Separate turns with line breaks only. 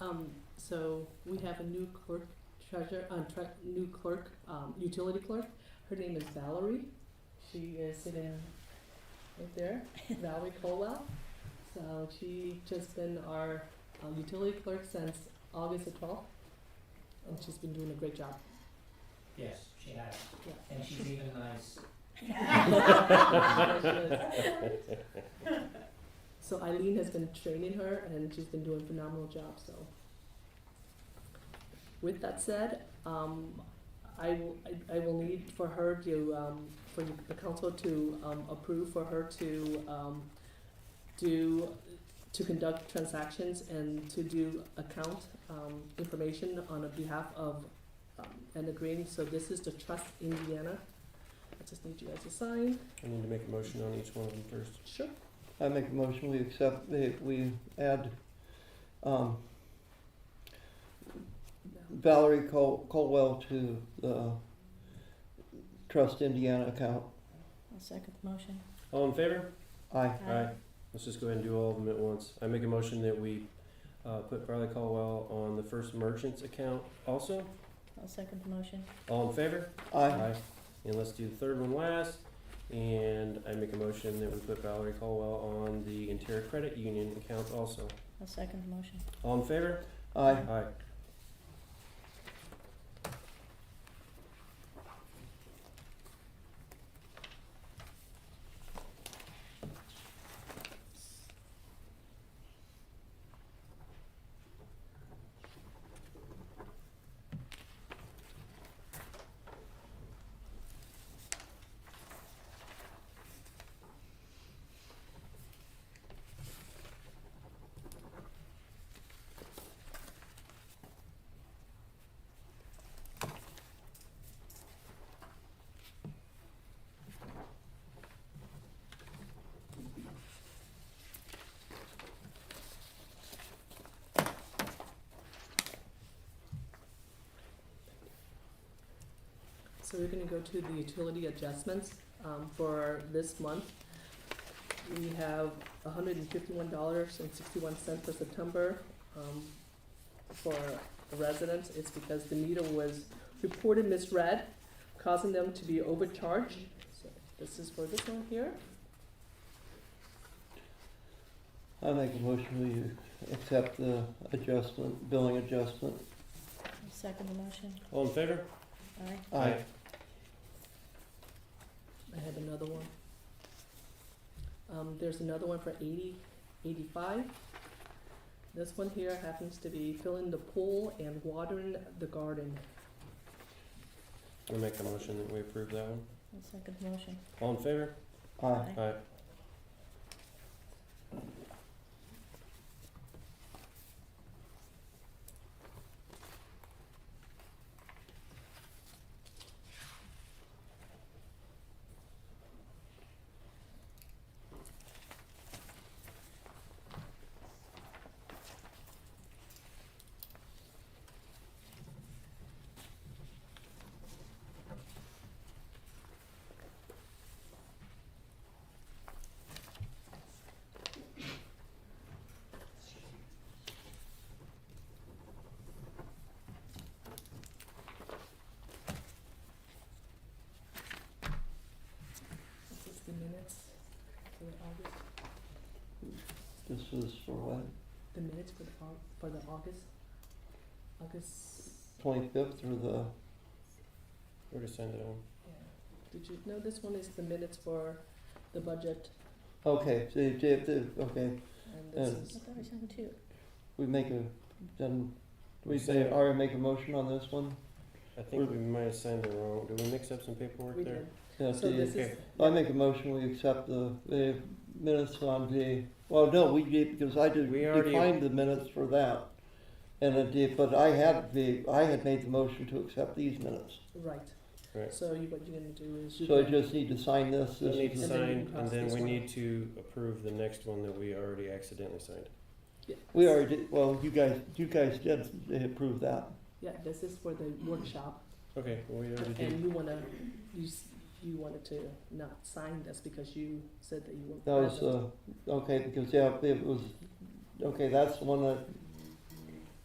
Um, so we have a new clerk treasure, uh, tre- new clerk, um, utility clerk. Her name is Valerie. She is sitting right there, Valerie Colwell. So she just been our um, utility clerk since August the twelfth. And she's been doing a great job.
Yes, she has.
Yeah.
And she's even nice.
So Eileen has been training her and she's been doing a phenomenal job, so. With that said, um, I will, I, I will need for her to, um, for the council to, um, approve for her to, um, do, to conduct transactions and to do account, um, information on behalf of, um, and agreeing, so this is the Trust Indiana. I just need you guys to sign,
I need to make a motion on each one of them first.
sure.
I make a motion, we accept, that we add um, Valerie Col- Colwell to the Trust Indiana account.
I'll second the motion.
All in favor?
Aye.
Aye. Let's just go ahead and do all of them at once. I make a motion that we uh, put Farley Caldwell on the first merchant's account also.
I'll second the motion.
All in favor?
Aye.
And let's do the third one last. And I make a motion that we put Valerie Caldwell on the Interior Credit Union account also.
I'll second the motion.
All in favor?
Aye.
Aye.
So we're gonna go to the utility adjustments, um, for this month. We have hundred and fifty-one dollars and sixty-one cents for September, um, for residents. It's because the meter was reported misread, causing them to be overcharged. So This is for this one here.
I make a motion, we accept the adjustment, billing adjustment.
I'll second the motion.
All in favor?
Aye.
Aye.
I have another one. Um, there's another one for eighty, eighty-five. This one here happens to be filling the pool and watering the garden.
I make a motion that we approve that one.
I'll second the motion.
All in favor?
Aye.
Aye.
Aye.
This is the minutes for the August,
This is for what,
the minutes for the Au- for the August, August,
twenty-fifth or the,
We already signed it on.
yeah. Did you, no, this one is the minutes for the budget
okay, so you have to, okay,
and this
Uh,
I
is,
thought we signed two.
we make a, then, do we
We say-
say, already make a motion on this one?
I think we might have signed it wrong. Did we mix up some paperwork
we
there?
did.
Yeah,
So
the-
this is,
okay.
I make a motion, we accept the, the minutes on the, well, no, we did, because I did,
We already-
defined the minutes for that. And it did, but I had the, I had made the motion to accept these minutes.
right.
Right.
So you, what you're gonna do is you.
So I
can-
just need to sign this,
We
this
need to
And
is,
then you
sign,
can
and
cross
then
this
we
one
need to approve the next one that we already accidentally signed.
Yeah.
we already, did- well, you guys, you guys did approve that.
Yeah, this is for the workshop.
Okay, well, we already did.
And you wanna, you, s- you wanted to not sign this because you said that you were.
uh, That was, uh, okay, because, yeah, it was, okay, that's the one that